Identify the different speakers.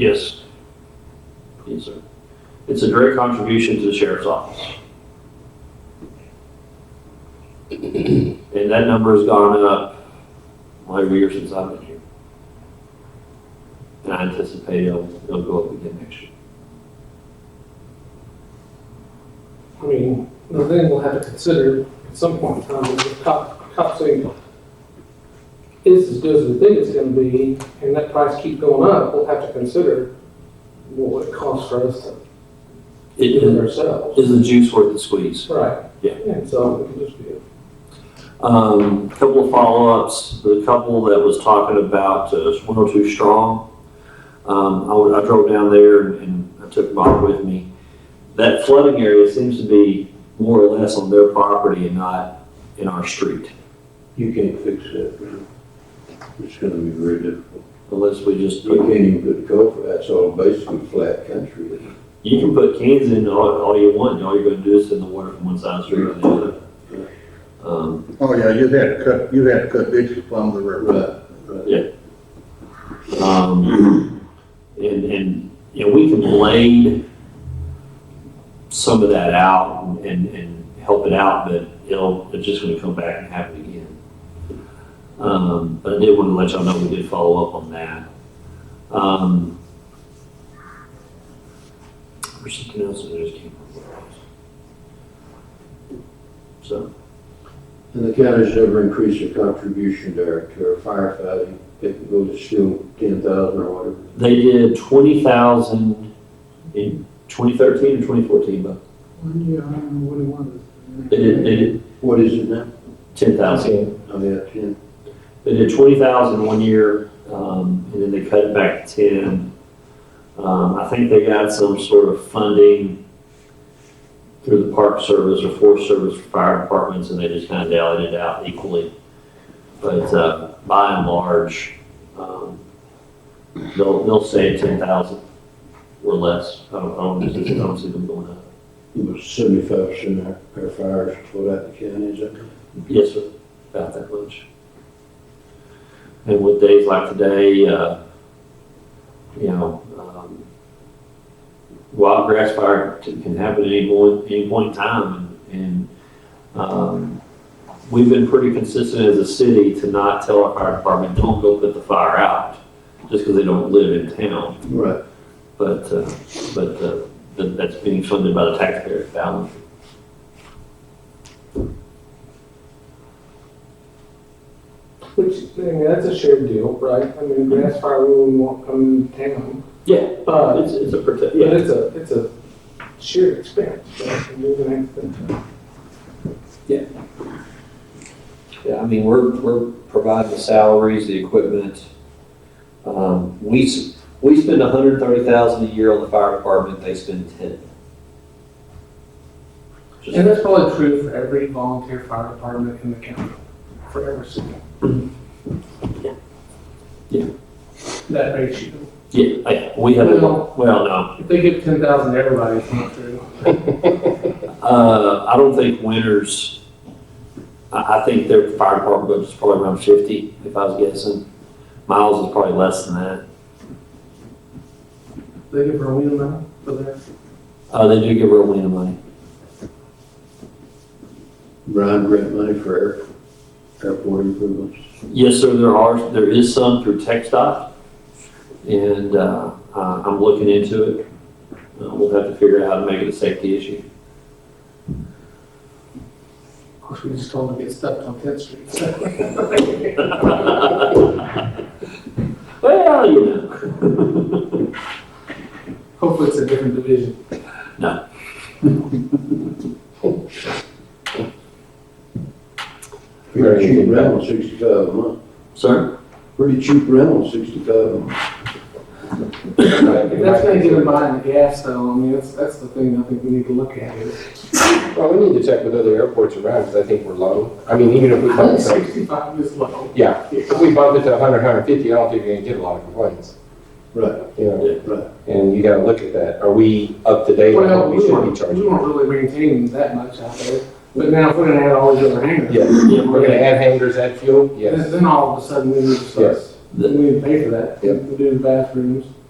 Speaker 1: Yes. Yes, sir. It's a direct contribution to the sheriff's office. And that number has gone up well, every year since I've been here. And I anticipate it'll, it'll go up again next year.
Speaker 2: I mean, well, then we'll have to consider at some point in time, the cop, cop saying, it's as good as we think it's gonna be, and that price keep going up, we'll have to consider what it costs for us to do
Speaker 1: It
Speaker 2: it
Speaker 1: is,
Speaker 2: ourselves.
Speaker 1: is the juice worth the squeeze?
Speaker 2: Right.
Speaker 1: Yeah.
Speaker 2: And so it could just be,
Speaker 1: Um, couple of follow-ups, the couple that was talking about uh, 102 Strong, um, I would- I drove down there and- and I took Bob with me. That flooding area seems to be more or less on their property and not in our street,
Speaker 3: You can't fix that, man. It's gonna be very difficult.
Speaker 1: unless we just
Speaker 3: You
Speaker 1: put,
Speaker 3: can't even put a culvert, that's all basically flat country.
Speaker 1: you can put cans in all, all you want, and all you're gonna do is send the water from one side of the street to the other. Um,
Speaker 4: Oh, yeah, you'd have to cut, you'd have to cut ditches along the river.
Speaker 3: Right, right.
Speaker 1: Um, and, and, you know, we can blade some of that out and, and help it out, but it'll, it's just gonna come back and happen again. Um, but I did wanna let y'all know we did follow up on that. Um, there's something else that I just can't remember. what it was. So,
Speaker 3: And the county's never increased their contribution there to our firefighting. They can go to still ten thousand or whatever.
Speaker 1: they did twenty thousand in twenty thirteen and twenty fourteen, but
Speaker 5: One year, I don't know what it was.
Speaker 1: they did, they did
Speaker 3: What is it now?
Speaker 1: ten thousand.
Speaker 3: I mean, at ten.
Speaker 1: They did twenty thousand one year, um, and then they cut it back to ten. Um, I think they got some sort of funding through the Park Service or Forest Service for fire departments, and they just kind of dialed it out equally. But, uh, by and large, um, they'll, they'll say ten thousand or less. I don't, I don't, I don't see them going up.
Speaker 3: It was seventy-five percent of our fires put out in the county, is that? correct?
Speaker 1: Yes, sir, about that much. And with days like today, uh, you know, um, wild grass fire t- can happen at any point, any point in time. And, um, we've been pretty consistent as a city to not tell our fire department, don't go put the fire out, just because they don't live in town.
Speaker 3: Right.
Speaker 1: But, uh, but, uh, th- that's being funded by the taxpayer balance.
Speaker 2: which, I mean, that's a shared deal, right? I
Speaker 1: Mm-hmm.
Speaker 2: mean, grass fire really won't come into town,
Speaker 1: Yeah,
Speaker 2: but
Speaker 1: it's, it's a protect,
Speaker 2: But
Speaker 1: yeah.
Speaker 2: it's a, it's a sheer expense, right? And you're gonna have to-
Speaker 1: Yeah, I mean, we're, we're providing the salaries, the equipment. Um, we, s- we spend a hundred and thirty thousand a year on the fire department, they spend ten. Just-
Speaker 5: And that's probably true for every volunteer fire department in the county, for every city.
Speaker 1: Yeah.
Speaker 5: That ratio.
Speaker 1: Yeah, I- we have, a-
Speaker 5: Well-
Speaker 1: well, no,
Speaker 5: If they give ten thousand to everybody, it's not true.
Speaker 1: uh, I don't think Winters, I, I think their fire department budget's probably around fifty, if I was guessing. Miles is probably less than that.
Speaker 5: They give her a win now for that.
Speaker 1: Uh, they do give her a win of money.
Speaker 3: Brian grant money for air, airport improvements.
Speaker 1: Yes, sir, there are, there is some through Tech Dot, and uh, uh, I'm looking into it. Uh, We'll have to figure out how to make it a safety issue.
Speaker 5: Of course, we just told them to get stuck on Tenth Street.
Speaker 1: Well, you know.
Speaker 5: Hopefully, it's a different division.
Speaker 3: Pretty cheap rental, sixty-five a month.
Speaker 1: Sir?
Speaker 3: Pretty cheap rental, sixty-five a month.
Speaker 5: If that's gonna get them by in the gas though, I mean, that's, that's the thing I think we need to look at is
Speaker 6: Well, we need to check with other airports around, because I think we're low. I mean, even if we bump it to,
Speaker 5: sixty-five is low.
Speaker 6: yeah, if we bump it to 100, 150, I don't think we're gonna get a lot of complaints,
Speaker 3: Right,
Speaker 6: you know?
Speaker 3: right.
Speaker 6: And you gotta look at that. Are we up to date on
Speaker 5: Well,
Speaker 6: what
Speaker 5: we
Speaker 6: we should be
Speaker 5: weren't, we
Speaker 6: charging?
Speaker 5: weren't really maintaining that much out there, but now if we're gonna add all these other hangers.
Speaker 6: Yeah,
Speaker 1: Yeah,
Speaker 6: we're gonna add hangers, add fuel, yes.
Speaker 5: Then, then all of a sudden, we need to start,
Speaker 6: Yes.
Speaker 5: then we need to pay for that,
Speaker 6: Yep.
Speaker 5: to do the bathrooms.